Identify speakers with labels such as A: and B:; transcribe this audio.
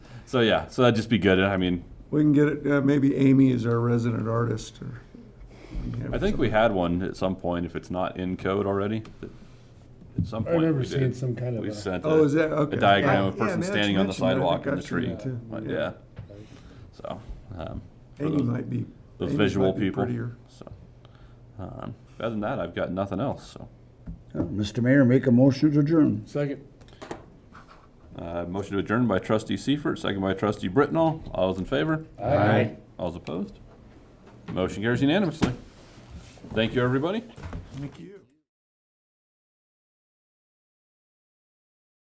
A: So yeah, so that'd just be good. I mean,
B: We can get it, uh, maybe Amy is our resident artist or. we can have
A: I think we had one at some point, if it's not in code already. At some
C: I
A: point,
C: remember
A: we
C: seeing
A: did.
C: some kind of
A: We
C: a,
A: sent
B: Oh, is
A: a
B: that, okay.
A: a diagram of a
B: Yeah,
A: person
B: Maddox
A: standing on the
B: mentioned that. I
A: sidewalk
B: think
A: and the
B: I've seen
A: tree.
B: that too.
A: But, Yeah, so, um, for
B: Amy
A: those-
B: might be.
A: those
B: Amy might
A: visual
B: be
A: people.
B: prettier.
A: So, um, other than that, I've got nothing else, so.
D: Uh, Mr. Mayor, make a motion to adjourn.
C: second,
A: Uh, motion to adjourn by trustee Seifert, second by trustee Britnall. All those in favor?
C: Aye.
A: All those opposed? Motion carries unanimously. Thank you, everybody.
B: Thank you.